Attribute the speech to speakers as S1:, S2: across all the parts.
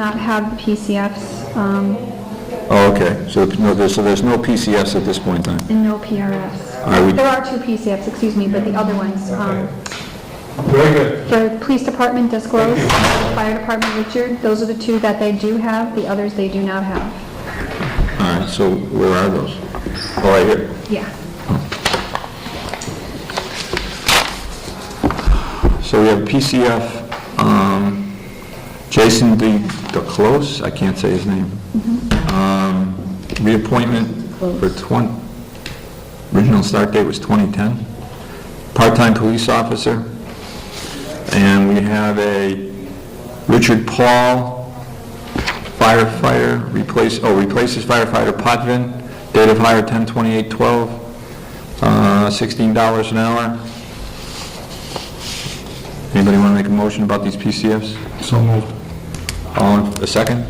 S1: not have PCFs um,
S2: Oh, okay, so, no, there's, so there's no PCFs at this point in time?
S1: and no PRFs.
S2: Are we-
S1: There are two PCFs, excuse me, but the other ones, um,
S3: Very good.
S1: the police department disclosed, fire department Richard, those are the two that they do have, the others they do not have.
S2: All right, so where are those? Oh, right here.
S1: Yeah.
S2: So we have PCF, um, Jason D. DeClose, I can't say his name. Um, Reappointment for 20, original start date was 2010. Part-time police officer. And we have a Richard Paul firefighter, replace, oh, replaces firefighter Potvin, date of hire 10/28/12, uh, $16 an hour. Anybody want to make a motion about these PCFs?
S3: So moved.
S2: All, in- a second?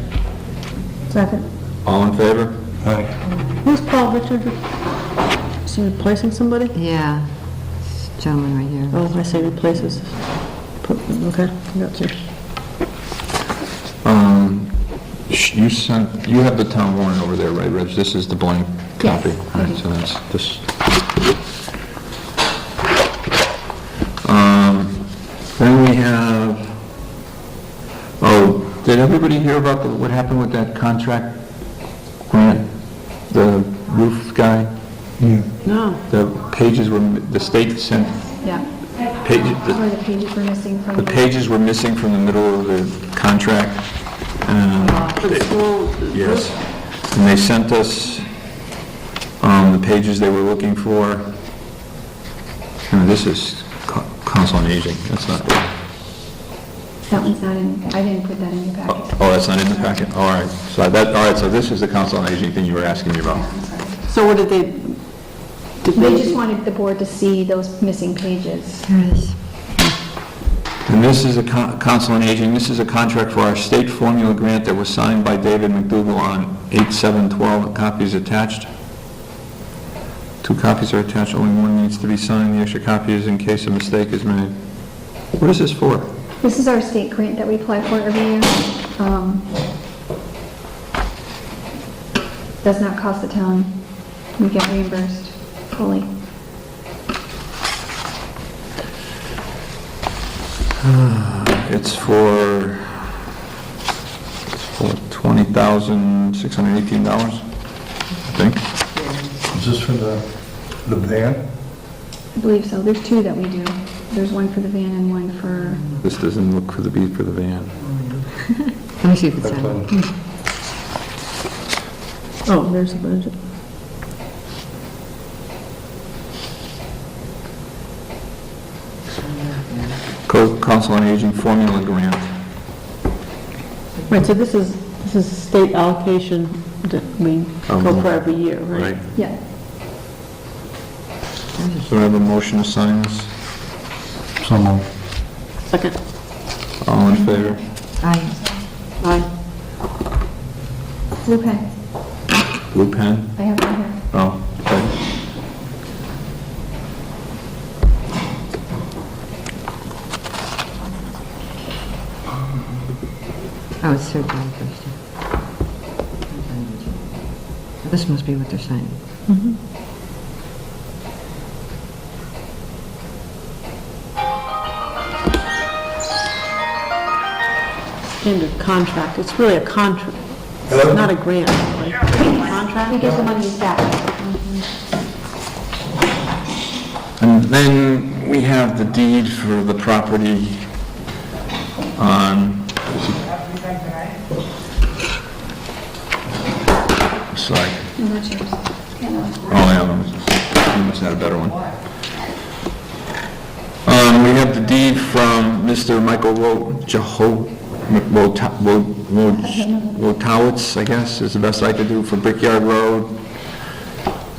S4: Second.
S2: All in favor?
S3: Aye.
S4: Who's Paul Richard? Is he replacing somebody?
S5: Yeah, this gentleman right here.
S4: Oh, I say replaces. Put- Okay, got you.
S2: Um, sh- you sent, you have the town warrant over there, right, Reg? This is the blank
S1: Yes,
S2: copy.
S1: I
S2: All
S1: do.
S2: right, so that's this. Um, Then we have, oh, did everybody hear about the- what happened with that contract grant? The roof guy,
S3: Yeah.
S4: No.
S2: the pages were, the state sent
S1: Yeah,
S2: pages, the
S1: where the pages were missing from
S2: The
S1: the...
S2: pages were missing from the middle of the contract. um, Yes. And they sent us um, the pages they were looking for. Now, this is co- council on aging, that's not,
S1: That one's not in, I didn't put that in your packet.
S2: oh, that's not in the packet? All right, so that, all right, so this is the council on aging thing you were asking me about.
S4: So what did they, did
S1: They just wanted the board to see those missing pages.
S5: Here it is.
S2: And this is a con- council on aging, this is a contract for our state formula grant that was signed by David McDougal on 8/7/12, copies attached. Two copies are attached, only one needs to be signed, the extra copy is in case a mistake is made. What is this for?
S1: This is our state grant that we apply for every year. Um, Does not cost the town. We get reimbursed fully.
S2: It's for, it's for $20,618, I think.
S3: Is this for the, the van?
S1: I believe so. There's two that we do. There's one for the van and one for,
S2: This doesn't look for the beat for the van.
S5: Let me see if it's
S3: That's
S5: on.
S3: all.
S4: Oh, there's a budget.
S2: Co- Council on Aging formula grant.
S4: Right, so this is, this is state allocation that we go
S2: Um,
S4: for every year, Oh, right?
S1: yeah.
S2: So I have a motion to sign this?
S3: So moved.
S4: Second.
S2: All in favor?
S5: Aye.
S4: Aye.
S1: Blue pen.
S2: Blue pen?
S1: I have one here.
S2: Oh, okay.
S5: Oh, it's third down first. This must be what they're signing.
S4: Under contract, it's really a contract, It's
S3: Hello?
S4: not a grant, right?
S1: We
S4: Contract?
S1: get the money back.
S2: And then we have the deed for the property on... Sorry.
S1: No, that's yours. Yeah, no.
S2: Oh, yeah, you must have had a better one. Um, we have the deed from Mr. Michael Wo, Jeho, Wota- Wo- Wo- Wotowitz, I guess, is the best I could do for Brickyard Road.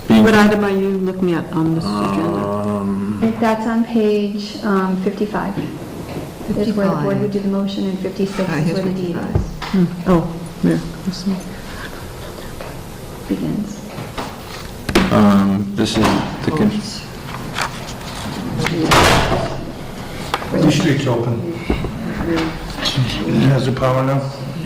S2: Being-
S4: What item are you Uh, looking at on this agenda?
S1: That's on page um, 55. There's where the board
S5: 55.
S1: would do the motion, and 56
S5: Ah,
S1: is
S5: here's
S1: where the
S5: what
S1: deed
S5: it
S1: is.
S5: is.
S4: Hmm, Oh, yeah. this one.
S1: begins.
S2: Um, this is the, con-
S3: The street's open. Has the power now?